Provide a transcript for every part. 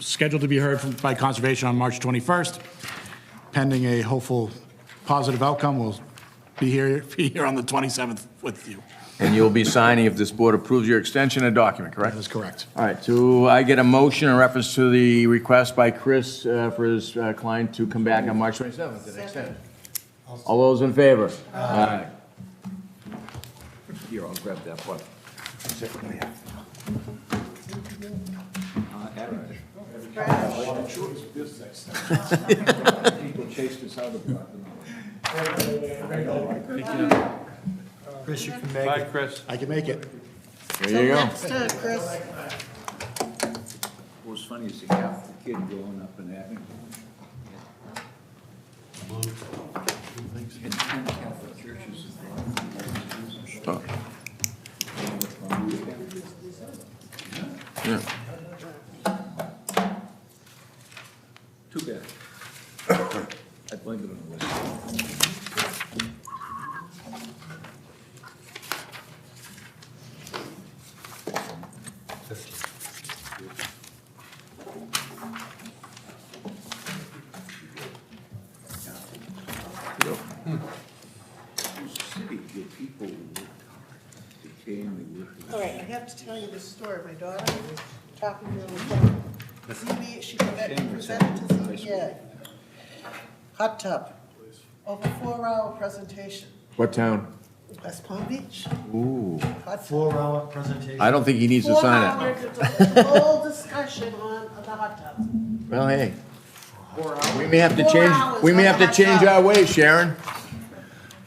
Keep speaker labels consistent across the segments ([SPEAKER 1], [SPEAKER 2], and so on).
[SPEAKER 1] scheduled to be heard from- by Conservation on March 21st. Pending a hopeful positive outcome, we'll be here, be here on the 27th with you.
[SPEAKER 2] And you'll be signing, if this board approves your extension, a document, correct?
[SPEAKER 1] That is correct.
[SPEAKER 2] All right, do I get a motion in reference to the request by Chris uh, for his uh, client to come back on March 27th and extend? All those in favor? Aye. Here, I'll grab that one.
[SPEAKER 3] Chris, you can make
[SPEAKER 4] Bye,
[SPEAKER 3] it.
[SPEAKER 4] Chris.
[SPEAKER 1] I can make it.
[SPEAKER 2] There you
[SPEAKER 5] Till
[SPEAKER 2] go.
[SPEAKER 5] next time, Chris.
[SPEAKER 6] What's funny is the Catholic kid growing up in Abington. And ten Catholic churches. Too bad. I blame it on the West. City, the people worked hard. They came, they worked.
[SPEAKER 5] All right, I have to tell you this story. My daughter was talking to her, ZB, she presented presented to ZBA. Hot tub, over four-hour presentation,
[SPEAKER 2] What town?
[SPEAKER 5] West Palm Beach.
[SPEAKER 2] Ooh,
[SPEAKER 5] Hot tub.
[SPEAKER 3] Four-hour presentation.
[SPEAKER 2] I don't think he needs to
[SPEAKER 5] Four
[SPEAKER 2] sign it.
[SPEAKER 5] hours, it's a whole discussion on the hot tub.
[SPEAKER 2] Well, hey. We may have to
[SPEAKER 5] Four
[SPEAKER 2] change,
[SPEAKER 5] hours
[SPEAKER 2] we may
[SPEAKER 5] on
[SPEAKER 2] have to
[SPEAKER 5] that
[SPEAKER 2] change
[SPEAKER 5] job.
[SPEAKER 2] our ways, Sharon.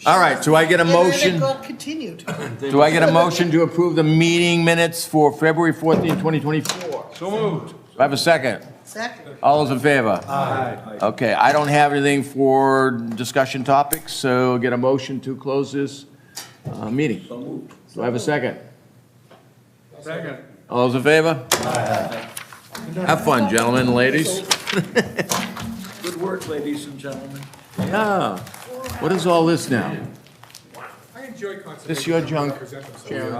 [SPEAKER 2] All right, do I get a motion?
[SPEAKER 5] And then it got continued.
[SPEAKER 2] Do I get a motion to approve the meeting minutes for February 14, 2024?
[SPEAKER 4] So moved.
[SPEAKER 2] Do I have a second?
[SPEAKER 5] Second,
[SPEAKER 2] All those in favor? Aye. Okay, I don't have anything for discussion topics, so get a motion to close this uh, meeting. Do I have a second?
[SPEAKER 4] Second.
[SPEAKER 2] All those in favor? Aye. Have fun, gentlemen and ladies.
[SPEAKER 6] Good work, ladies and gentlemen.
[SPEAKER 2] Yeah. What is all this now?
[SPEAKER 7] I enjoy conservation.
[SPEAKER 2] This your junk,
[SPEAKER 7] Represent themselves.
[SPEAKER 2] Sharon?